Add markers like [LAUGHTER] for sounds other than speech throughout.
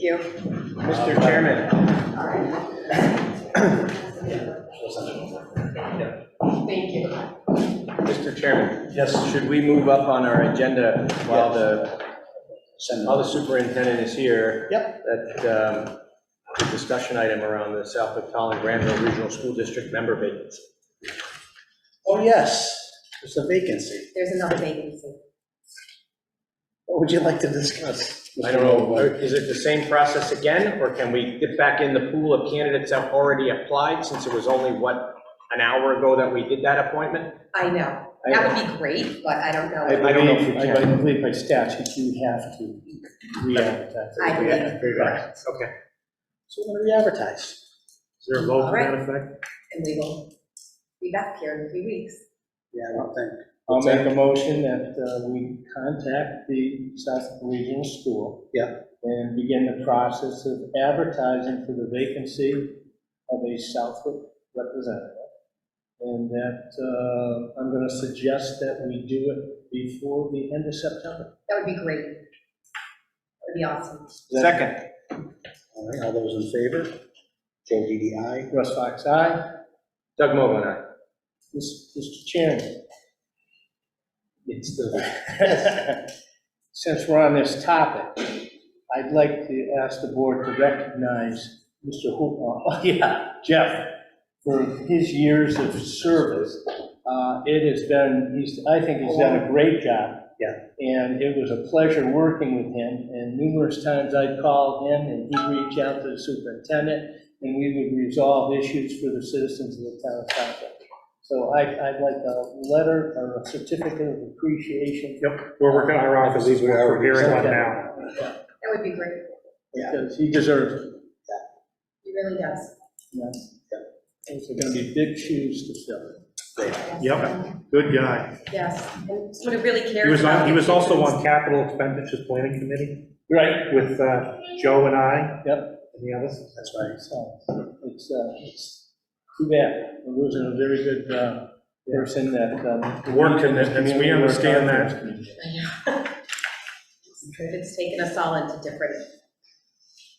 You. Mr. Chairman, Thank you. Mr. Chairman, Yes, should we move up on our agenda while Yes. the send while out. the superintendent is here? Yep. That um, the discussion item around the Southwick Holland Granville Regional School District member vacancy. Oh, yes, there's a vacancy. There's another vacancy. What would you like to discuss? I don't know, uh, is it the same process again, or can we get back in the pool of candidates that already applied, since it was only, what, an hour ago that we did that appointment? I know. I- That would be great, but I don't I know. I don't know if we believe, I believe by statute, you have to re-advertise. I believe Right. Okay. So we're gonna re-advertise. Is there a vote All to right. that effect? And we will be back here in a few weeks. Yeah, I don't think. I'll What's that? make a motion that uh, we contact the South Regional School. Yeah. And begin the process of advertising for the vacancy of a Southwick representative. And that uh, I'm going to suggest that we do it before the end of September. That would be great. That would be awesome. Second. All right, all those in favor? Joe Didi, aye. Russ Fox, aye. Doug Mogul, aye. Mis- Mr. Chairman. It's the, [LAUGHS] since we're on this topic, I'd like to ask the board to recognize Mr. Hoop, oh, [LAUGHS] yeah, Jeff, for his years of service. Uh, It has been, he's, I think he's done a great job. Yeah. And it was a pleasure working with him, and numerous times I called him, and he'd reach out to the superintendent, and we would resolve issues for the citizens of the town of Southwick. So I, I'd like a letter or a certificate of appreciation. Yep, we're working on our office, we're preparing one now. That would be great. Because he deserves it. He really does. yes. Those are gonna be big shoes to fill. Yep, good guy. Yes, and what it really cares. He was on, about he was also on is- capital expenditures planning committee Right. with uh, Joe and I. Yep. And the others. That's right. So it's, uh, it's too bad. We're losing a very good uh, person that. um, Work commitments, we understand that. [LAUGHS] It's taken us all into different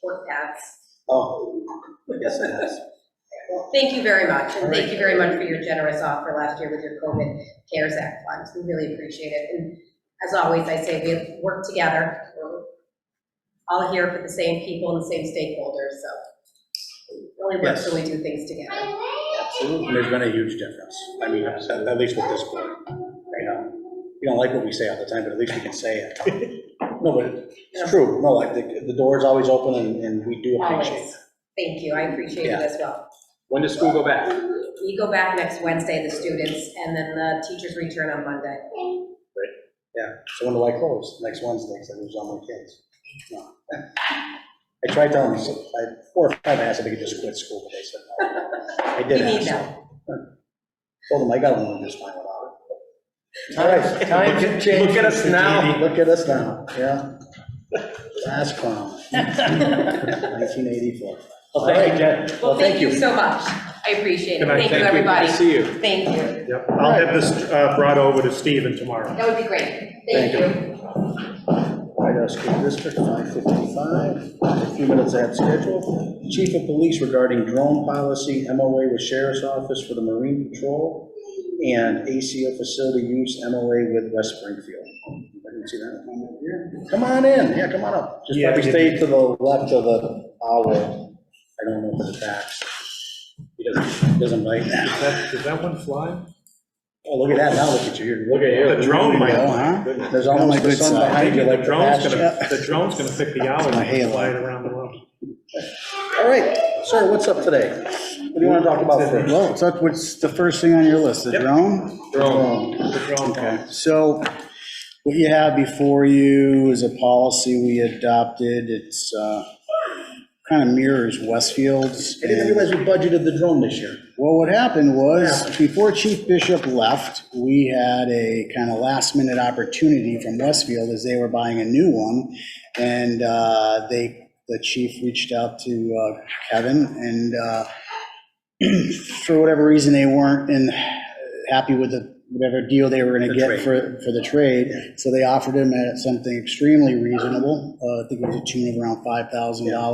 work paths. Oh, yes, it has. Well, thank you very much, and thank you very much for your generous offer last year with your COVID CARES Act funds. We really appreciate it. And as always, I say we work together. We're all here for the same people and the same stakeholders, so it only works when we do things together. Absolutely. There's been a huge difference. I mean, at at least with this board, you know, you don't like what we say all the time, but at least we can say it. [LAUGHS] No, but it's true. No, like, the, the door is always open and, and we do appreciate. Always. Thank you. I appreciate it as well. When does school go back? We go back next Wednesday, the students, and then the teachers return on Monday. So when do I close? Next Wednesday, because I lose all my kids. No. I tried telling them, I, four or five, I asked if they could just quit school, but they said [LAUGHS] no. I We did need ask. them. Told them I got along just fine without it. All right, Times have changed. Look at us [LAUGHS] now. look at us now, yeah. [LAUGHS] Last clown, 1984. Well, thank you, Jen. Well, thank you so much. I appreciate it. Good night. Thank you, Thank you. everybody. See you. Thank you. Yep, I'll have this uh, brought over to Stephen tomorrow. That would be great. Thank Thank you. White House School District, 555, a few minutes ahead of schedule. Chief of Police regarding drone policy, MOA with Sheriff's Office for the Marine Patrol, and ACO facility use, MOA with West Springfield. Anybody can see that one up here? Come on in, yeah, come on up. Just Yeah, we probably stay to the left of the owl. I don't know if it's attached. He doesn't, doesn't bite Does now. that- does that one fly? Oh, look at that, now look at you, you're Look at you. The drone Oh, might. huh? There's almost the sun behind you like The the drone's gonna, pasture. the drone's gonna pick the owl It's my and halo. fly it around the world. All right, sir, what's up today? What do you want to talk about first? Well, so what's the first thing on your list, the Yep. drone? Drone, the drone Okay, call. so what you have before you is a policy we adopted. It's kind of mirrors Westfield's. I didn't and- realize we budgeted the drone this year. Well, what happened was, before Chief Bishop left, we had a kind of last-minute opportunity from Westfield as they were buying a new one. And uh, they, the chief reached out to uh, Kevin, [CLEARS THROAT] and uh, for whatever reason, they weren't in, happy with the whatever deal they were gonna The get trade. for, for the trade. uh, So they offered him at something extremely reasonable, uh, I think it was a tune of around $5,000.